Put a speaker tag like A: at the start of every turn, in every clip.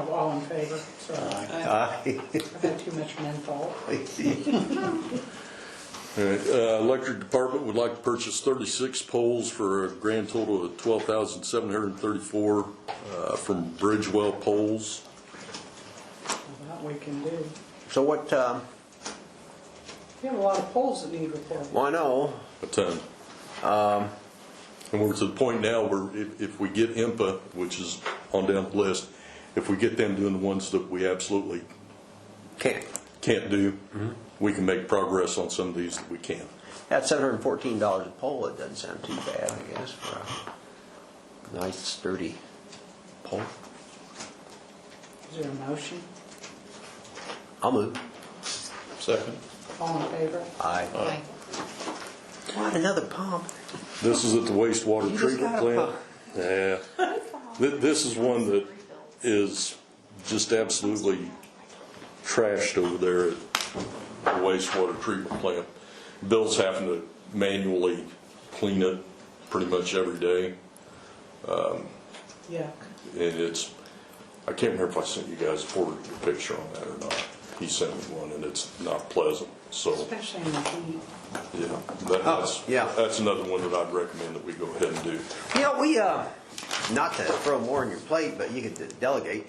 A: in favor? Sorry,
B: Aye.
A: I've had too much menthol.
C: All right, uh, Electric Department would like to purchase 36 poles for a grand total of $12,734 uh, from Bridgewell Poles.
A: That we can do.
B: So what, um,
A: We have a lot of poles that need repaired.
B: well, I know,
C: a ton. And we're to the point now where if, if we get IMPA, which is on down the list, if we get them doing the ones that we absolutely
B: can't,
C: can't do, we can make progress on some of these that we can.
B: at seven hundred and fourteen dollars a pole, it doesn't sound too bad, I guess, for a nice sturdy pole.
A: Is there a motion?
B: I'll move.
C: Second.
A: All in favor?
B: Aye. Want another pump?
C: This is at the wastewater
B: You just
C: treatment
B: got a
C: plant.
B: pump.
C: Yeah. Th- This is one that is just absolutely trashed over there at the wastewater treatment plant. Bill's having to manually clean it pretty much every day.
A: Yuck.
C: And it's, I can't remember if I sent you guys a forwarded picture on that or not. He sent me one and it's not pleasant, so,
A: Especially in the heat.
C: yeah. that- that's-
B: Oh, yeah.
C: That's another one that I'd recommend that we go ahead and do.
B: You know, we, uh, not to throw more on your plate, but you could delegate.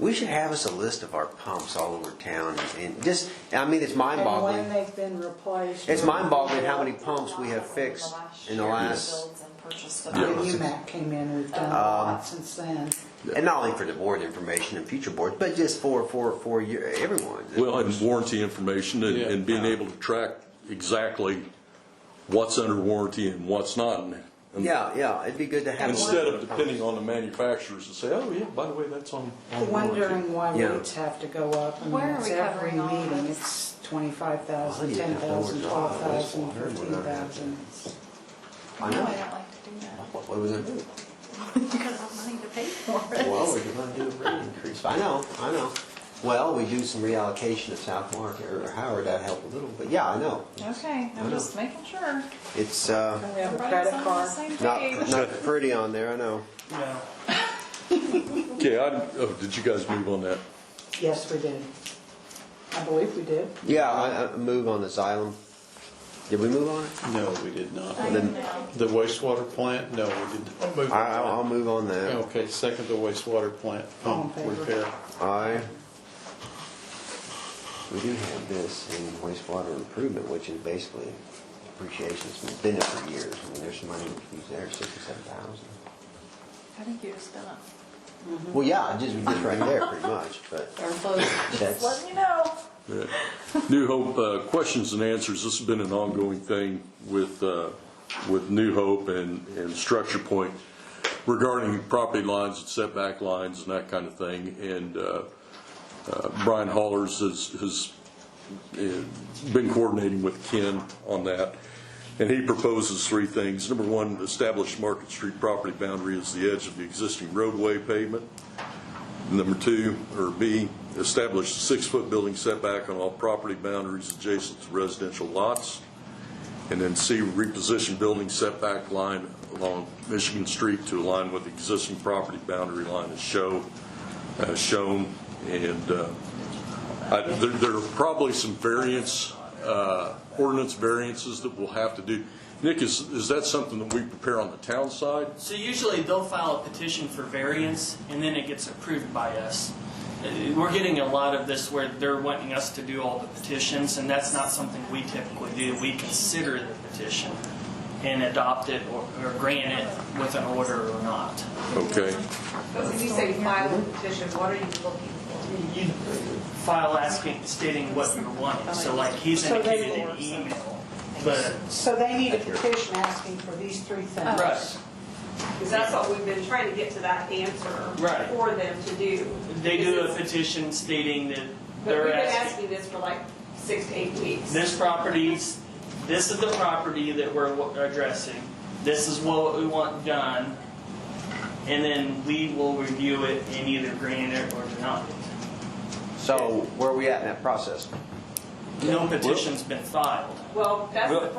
B: We should have us a list of our pumps all over town and just, I mean, it's mind
A: And
B: boggling.
A: when they've been replaced.
B: It's mind-boggling how many pumps we have fixed in the last,
A: When UMAC came in, we've done a
B: Um,
A: lot since then.
B: and not only for the board information and future boards, but just for, for, for your, everyone.
C: Well, and warranty information and, and being able to track exactly what's under warranty and what's not. And- and
B: Yeah, yeah, it'd be good to have. a list
C: Instead of
B: the
C: depending on the manufacturers to say, oh, yeah, by the way, that's on. on warranty."
A: Wondering why
B: Yeah.
A: rates have to go up. I mean,
D: Where are
A: it's
D: we
A: every
D: covering all of
A: meeting.
D: this?
A: It's 25,000,
B: Well, you have
A: 10,000,
B: no regard.
A: 12,000,
B: That's water.
A: 13,000. It's-
B: pumps.
D: No, I
B: I
D: don't like to do
B: know.
D: that,
B: What what was it?
D: because I'm money to pay for
B: Well,
D: it.
B: we're gonna do a rate increase. I know, I know. Well, we do some reallocation of South Market or Howard, that'd help a little, but yeah, I know. I
D: Okay,
B: know.
D: I'm just making sure.
B: It's, uh,
A: We have a
D: Everybody's
A: credit
D: on the
A: card.
D: same
B: not,
D: page.
B: not pretty on there, I know.
C: Okay, I, oh, did you guys move on that?
A: Yes, we did. I believe we did.
B: Yeah, I, I move on the Xylem. Did we move on it?
E: No, we did not.
D: I
B: then-
D: know.
E: The wastewater plant, no, we did not move
B: I, I'll I'll
E: on
B: move on
E: that.
B: that.
E: Okay, second the wastewater plant
A: All in
E: pump
A: favor?
E: repair.
B: Aye. We do have this in wastewater improvement, which is basically depreciation, it's been there for years, I mean, there's some money we could use there, sixty-seven thousand.
D: I think you just gonna,
B: Well, yeah, just, just right there, pretty much, but
D: just
B: that's,
D: letting you know.
C: Yeah. New Hope, uh, questions and answers, this has been an ongoing thing with, uh, with New Hope and, and Structure Point regarding property lines and setback lines and that kind of thing. And uh, uh, Brian Hollers has, has uh, been coordinating with Ken on that. And he proposes three things. Number one, establish Market Street property boundary as the edge of the existing roadway pavement. Number two, or B, establish a six-foot building setback on all property boundaries adjacent to residential lots. And then C, reposition building setback line along Michigan Street to align with existing property boundary line as show, uh, shown. And, uh, I, there, there are probably some variance, uh, ordinance variances that we'll have to do. Nick, is, is that something that we prepare on the town side?
F: So usually they'll file a petition for variance, and then it gets approved by us. Uh, We're getting a lot of this where they're wanting us to do all the petitions, and that's not something we typically do. We consider the petition and adopt it or or grant it with an order or not.
C: Okay.
G: When you say file a petition, what are you looking for?
F: You file asking, stating what you're wanting, so like he's
A: So they-
F: indicated an email, but,
A: So they need a petition asking for these three things.
F: right.
G: Because that's what we've been trying to get to that answer
F: Right.
G: for them to do.
F: They do a petition stating that
G: But we've
F: they're
G: been
F: asking.
G: asking this for like six to eight weeks.
F: this property's, this is the property that we're wa- addressing. This is what we want done. And then we will review it and either grant it or deny it.
B: so where are we at in that process?
F: No petition's been filed.
G: Well, that's the
F: Well-